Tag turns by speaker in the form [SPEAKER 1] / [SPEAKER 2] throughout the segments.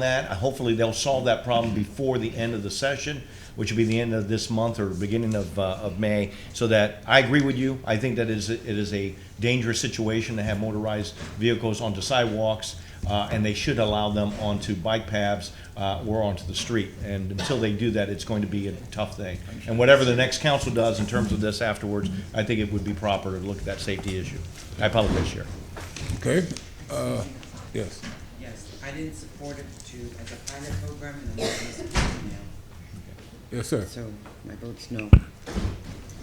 [SPEAKER 1] that. Hopefully, they'll solve that problem before the end of the session, which will be the end of this month or beginning of, uh, of May, so that, I agree with you. I think that is, it is a dangerous situation to have motorized vehicles onto sidewalks, uh, and they should allow them onto bike paths, uh, or onto the street. And until they do that, it's going to be a tough thing. And whatever the next council does in terms of this afterwards, I think it would be proper to look at that safety issue. I apologize, Chair.
[SPEAKER 2] Okay, uh, yes.
[SPEAKER 3] Yes, I didn't support it to, as a pilot program and then as a now.
[SPEAKER 2] Yes, sir.
[SPEAKER 3] So my vote's no.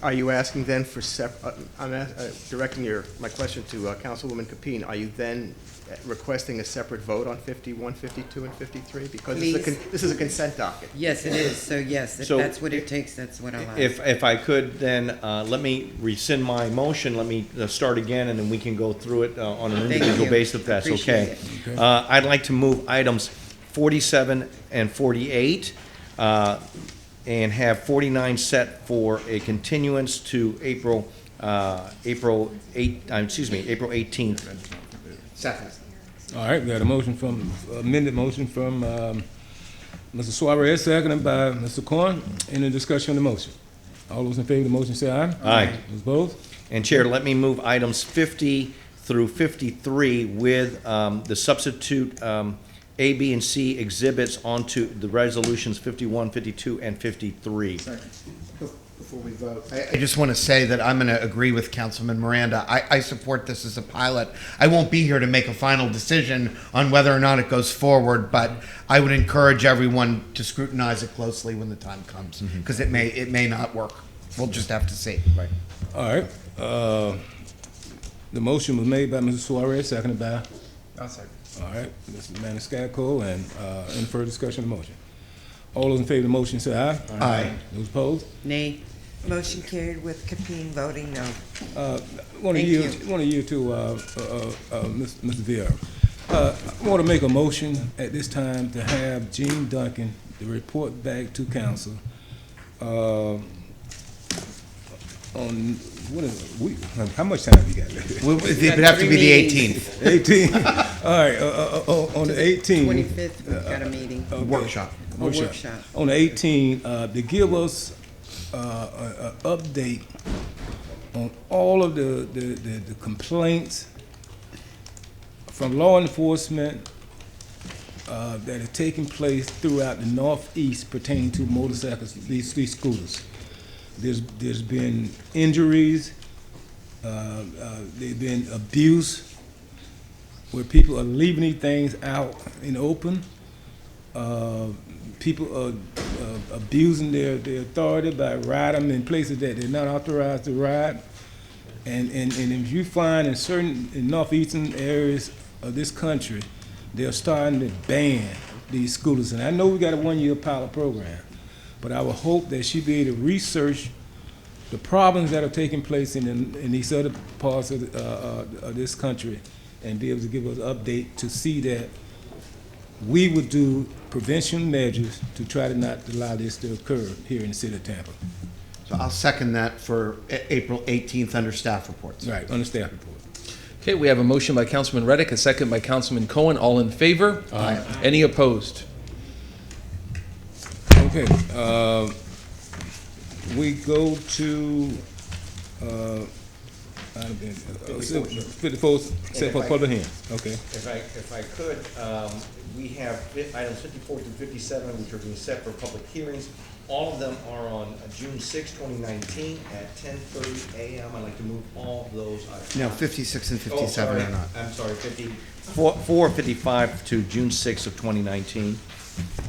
[SPEAKER 4] Are you asking then for sep, uh, I'm ask- uh, directing your, my question to uh, Councilwoman Capeen. Are you then uh, requesting a separate vote on 51, 52, and 53? Because this is a con- this is a consent docket.
[SPEAKER 3] Yes, it is, so yes, if
[SPEAKER 1] So-
[SPEAKER 3] that's what it takes, that's what I'll ask.
[SPEAKER 1] If, if I could, then uh, let me rescind my motion, let me uh, start again, and then we can go through it uh, on an
[SPEAKER 3] Thank
[SPEAKER 1] individual
[SPEAKER 3] you.
[SPEAKER 1] basis, if that's okay.
[SPEAKER 3] Appreciate
[SPEAKER 2] it.
[SPEAKER 1] Uh, I'd like to move items 47 and 48, uh, and have 49 set for a continuance to April, uh, April 8, uh, excuse me, April 18th.
[SPEAKER 4] Second.
[SPEAKER 2] All right, we had a motion from, amended motion from um, Mr. Suarez, seconded by Mr. Corn. Any discussion on the motion? All those in favor of the motion say aye.
[SPEAKER 1] Aye.
[SPEAKER 2] Those opposed?
[SPEAKER 1] And Chair, let me move items 50 through 53 with um, the substitute um, A, B, and C exhibits onto the resolutions 51, 52, and 53.
[SPEAKER 5] Before we vote. I, I just want to say that I'm going to agree with Councilman Miranda. I, I support this as a pilot. I won't be here to make a final decision on whether or not it goes forward, but I would encourage everyone to scrutinize it closely when the time comes, because it may, it may not work. We'll just have to see. Right.
[SPEAKER 2] All right, uh, the motion was made by Mr. Suarez, seconded by, all right, Mr. Maniscalco, and uh, any further discussion on the motion? All those in favor of the motion say aye.
[SPEAKER 5] Aye.
[SPEAKER 2] Those opposed?
[SPEAKER 3] Nay, motion carried with Capeen voting no.
[SPEAKER 2] One of
[SPEAKER 3] Thank
[SPEAKER 2] you,
[SPEAKER 3] you.
[SPEAKER 2] one of you two, uh, uh, uh, Mr. Mr. Vieira. Uh, I want to make a motion at this time to have Gene Duncan to report back to council uh, on, what is, we, how much time you got?
[SPEAKER 5] It'd have to be the 18th
[SPEAKER 2] Eighteen, all right, uh, uh, uh, on the eighteen.
[SPEAKER 3] Twenty-fifth, we've got a meeting.
[SPEAKER 5] uh, workshop.
[SPEAKER 3] A workshop.
[SPEAKER 2] On the 18, uh, to give us uh, a, a update on all of the, the, the the complaints from law enforcement uh, that are taking place throughout the Northeast pertaining to motorcycles, these, these scooters. There's, there's been injuries, uh, uh, there's been abuse, where people are leaving these things out in the open uh, people are uh, abusing their, their authority by riding them in places that they're not authorized to ride. And, and, and if you find in certain, in northeastern areas of this country, they're starting to ban these scooters. And I know we got a one-year pilot program, but I would hope that she'd be able to research the problems that are taking place in, in these other parts of, the- uh, uh, of this country and be able to give us an update to see that we would do prevention measures to try to not allow this to occur here in the city of Tampa.
[SPEAKER 5] So I'll second that for A- April 18th under staff reports.
[SPEAKER 2] Right, on the staff report.
[SPEAKER 6] Okay, we have a motion by Councilman Reddick, a second by Councilman Cohen. All in favor? Aye. Any opposed?
[SPEAKER 2] Okay, uh, we go to, uh, item fifty-four, set for public hearing, okay.
[SPEAKER 1] If I, if I could, um, we have fi- items fifty-four through fifty-seven, which are being set for public hearings. All of them are on uh, June sixth, twenty nineteen, at ten thirty AM. I'd like to move all those items.
[SPEAKER 5] No, 56 and
[SPEAKER 1] Oh,
[SPEAKER 5] 57
[SPEAKER 1] sorry.
[SPEAKER 5] are not.
[SPEAKER 1] I'm sorry, fifty. Four, four fifty-five to June sixth of twenty nineteen.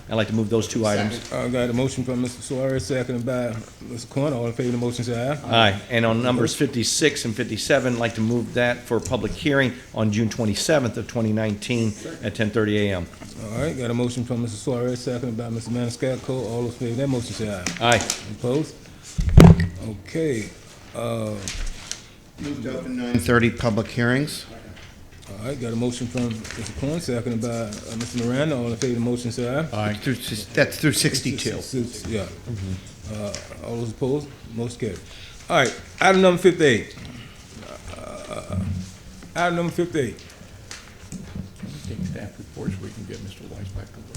[SPEAKER 1] I'd like to move those two items.
[SPEAKER 2] I Uh, got a motion from Mr. Suarez, seconded by Mr. Corn. All in favor of the motion, say aye.
[SPEAKER 1] Aye, and on numbers fifty-six and fifty-seven, I'd like to move that for public hearing on June twenty-seventh of twenty nineteen at ten thirty AM.
[SPEAKER 2] All right, got a motion from Mr. Suarez, seconded by Mr. Maniscalco. All those in favor of that motion, say aye.
[SPEAKER 1] Aye.
[SPEAKER 2] Opposed? Okay, uh,
[SPEAKER 5] Moved open 9:30 public hearings.
[SPEAKER 2] All right, got a motion from Mr. Corn, seconded by uh, Mr. Miranda. All in favor of the motion, say aye.
[SPEAKER 5] Through s- That's through 62.
[SPEAKER 2] S- s- Yeah. Uh, All those opposed, motion carried. All right, item number fifty-eight. Uh, Item number fifty-eight.
[SPEAKER 7] Take staff reports, we can get Mr. Weiss back on